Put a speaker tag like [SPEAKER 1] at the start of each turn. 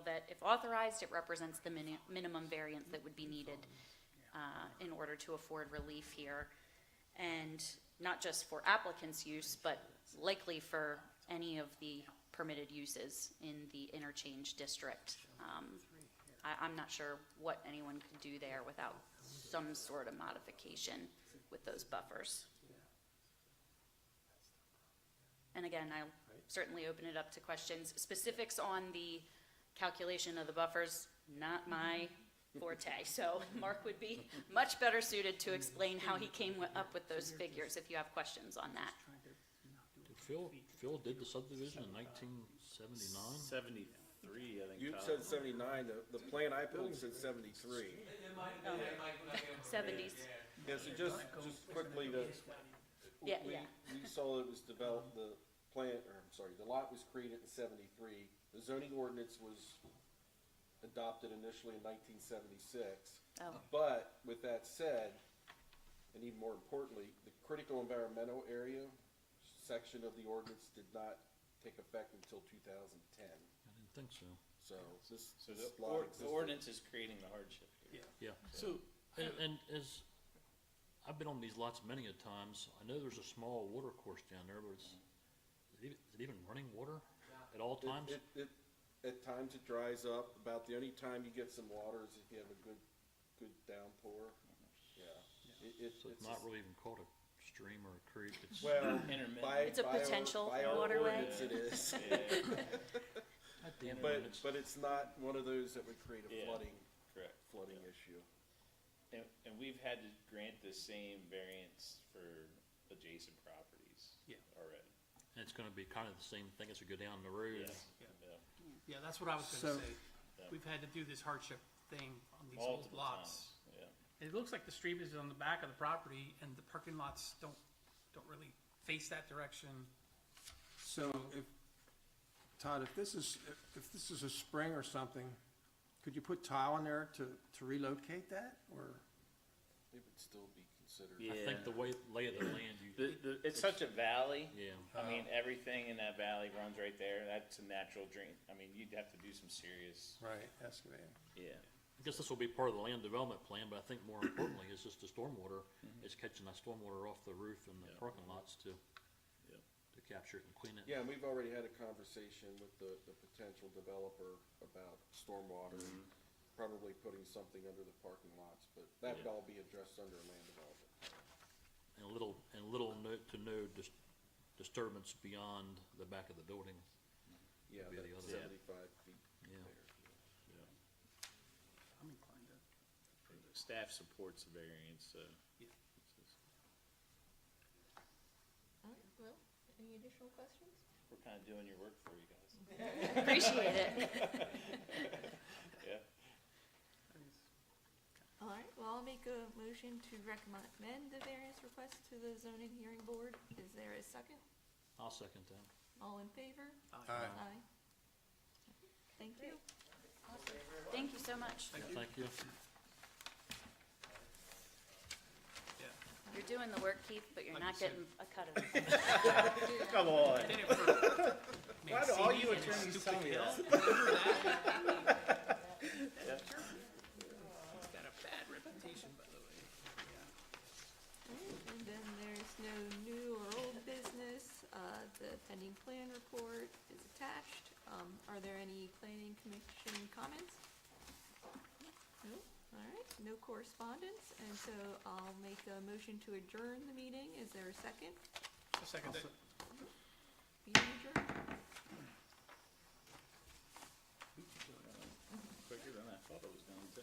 [SPEAKER 1] but if authorized, it represents the mini- minimum variance that would be needed uh, in order to afford relief here. And not just for applicants' use, but likely for any of the permitted uses in the interchange district. Um, I, I'm not sure what anyone could do there without some sort of modification with those buffers. And again, I'll certainly open it up to questions. Specifics on the calculation of the buffers,
[SPEAKER 2] Mm-hmm.
[SPEAKER 1] not my forte. So Mark would be much better suited to explain how he came wi- up with those figures if you have questions on that.
[SPEAKER 3] Phil, Phil did the subdivision in nineteen seventy-nine?
[SPEAKER 4] Seventy-three, I think.
[SPEAKER 5] You
[SPEAKER 4] Todd.
[SPEAKER 5] said seventy-nine, the, the plan I pulled said seventy-three.
[SPEAKER 1] Seventies,
[SPEAKER 5] Yeah, so just, just quickly to.
[SPEAKER 1] yeah,
[SPEAKER 5] we-
[SPEAKER 1] yeah.
[SPEAKER 5] We saw it was developed, the plant, or I'm sorry, the lot was created in seventy-three. The zoning ordinance was adopted initially in nineteen seventy-six.
[SPEAKER 1] Oh,
[SPEAKER 5] But with that said, and even more importantly, the critical environmental area section of the ordinance did not take effect until two thousand and ten.
[SPEAKER 3] I didn't think so.
[SPEAKER 5] So this,
[SPEAKER 4] So
[SPEAKER 5] this
[SPEAKER 4] the,
[SPEAKER 5] lot
[SPEAKER 4] or, the
[SPEAKER 5] existed.
[SPEAKER 4] ordinance is creating the hardship here.
[SPEAKER 3] Yeah.
[SPEAKER 2] So,
[SPEAKER 3] And, and as, I've been on these lots many a times, I know there's a small water course down there, but it's, is it even- is it even running water at all
[SPEAKER 5] It-
[SPEAKER 3] times?
[SPEAKER 5] It, it, at times it dries up, about the only time you get some water is if you have a good, good downpour, yeah. It, it,
[SPEAKER 3] So it's
[SPEAKER 5] it's,
[SPEAKER 3] not
[SPEAKER 5] just-
[SPEAKER 3] really even called a stream or a creek, it's,
[SPEAKER 5] well,
[SPEAKER 4] Intermittent.
[SPEAKER 5] by,
[SPEAKER 1] It's a
[SPEAKER 5] by our-
[SPEAKER 1] potential
[SPEAKER 5] by our
[SPEAKER 1] waterway.
[SPEAKER 5] ordinance it is.
[SPEAKER 4] Yeah,
[SPEAKER 3] at the end of
[SPEAKER 5] But,
[SPEAKER 3] it, it's,
[SPEAKER 5] but it's not one of those that would create
[SPEAKER 4] Yeah.
[SPEAKER 5] a flooding,
[SPEAKER 4] correct.
[SPEAKER 5] flooding issue.
[SPEAKER 4] And, and we've had to grant the same variance for adjacent properties.
[SPEAKER 2] Yeah.
[SPEAKER 4] Already.
[SPEAKER 3] and it's gonna be kind of the same thing as we go down the road.
[SPEAKER 4] Yes.
[SPEAKER 2] Yeah.
[SPEAKER 4] Yeah.
[SPEAKER 2] yeah, that's what I was gonna
[SPEAKER 6] So-
[SPEAKER 2] say.
[SPEAKER 4] Yeah.
[SPEAKER 2] We've had to do this hardship thing on these old
[SPEAKER 4] Multiple
[SPEAKER 2] lots.
[SPEAKER 4] times, yeah.
[SPEAKER 2] It looks like the street is on the back of the property and the parking lots don't, don't really face that direction.
[SPEAKER 6] So if, Todd, if this is, if- if this is a spring or something, could you put tile in there to, to relocate that, or?
[SPEAKER 5] It would still be considered.
[SPEAKER 3] I think the way, lay of the land, you,
[SPEAKER 4] The, the, it's such a valley.
[SPEAKER 3] yeah.
[SPEAKER 4] I mean, everything in that valley runs right there. That's a natural drain. I mean, you'd have to do some serious,
[SPEAKER 6] Right. Excavating.
[SPEAKER 4] yeah.
[SPEAKER 3] I guess this will be part of the land development plan, but I think more importantly, is just the stormwater, is catching that stormwater off the roof and the
[SPEAKER 4] Yeah.
[SPEAKER 3] parking lots to,
[SPEAKER 4] Yeah.
[SPEAKER 3] to capture it and clean it.
[SPEAKER 5] Yeah, and we've already had a conversation with the, the potential developer about stormwater, and probably putting something under the parking lots, but that would
[SPEAKER 3] Mm-hmm. Yeah.
[SPEAKER 5] all be addressed under a land development.
[SPEAKER 3] And little, and little note to no dis- disturbance beyond the back of the building.
[SPEAKER 5] Yeah,
[SPEAKER 3] Be the
[SPEAKER 5] that
[SPEAKER 3] other- Yeah.
[SPEAKER 5] seventy-five feet
[SPEAKER 3] Yeah.
[SPEAKER 5] there.
[SPEAKER 2] I'm inclined to,
[SPEAKER 4] Staff supports the variance, uh, so.
[SPEAKER 2] Yeah.
[SPEAKER 7] All right, well, any additional questions?
[SPEAKER 4] We're kind of doing your work for you guys.
[SPEAKER 1] Appreciate it.
[SPEAKER 4] Yeah.
[SPEAKER 7] All right, well, I'll make a motion to recommend the variance request to the zoning hearing board. Is there a second?
[SPEAKER 3] I'll second that.
[SPEAKER 7] All in favor?
[SPEAKER 6] Aye.
[SPEAKER 7] Aye. Thank you.
[SPEAKER 1] Thank you so much.
[SPEAKER 3] Yeah, Thank you.
[SPEAKER 2] yeah.
[SPEAKER 1] You're doing the work, Keith, but you're
[SPEAKER 2] Like
[SPEAKER 1] not
[SPEAKER 2] you said.
[SPEAKER 1] getting a cut of it.
[SPEAKER 4] Come on.
[SPEAKER 2] I did it for
[SPEAKER 4] Why do all you
[SPEAKER 2] Mancini and
[SPEAKER 4] attorneys tell
[SPEAKER 2] Stupid
[SPEAKER 4] me
[SPEAKER 2] Hill.
[SPEAKER 4] that?
[SPEAKER 2] Remember that? Oh, It's Got a bad reputation, by the way.
[SPEAKER 7] All right, And then there's no new or old business. Uh, the pending plan report is attached. Um, are there any planning commission comments? No? All right, no correspondence, and so I'll make a motion to adjourn the meeting. Is there a second?
[SPEAKER 2] A second that.
[SPEAKER 7] Meeting adjourned.
[SPEAKER 4] Quicker than I thought it was going to.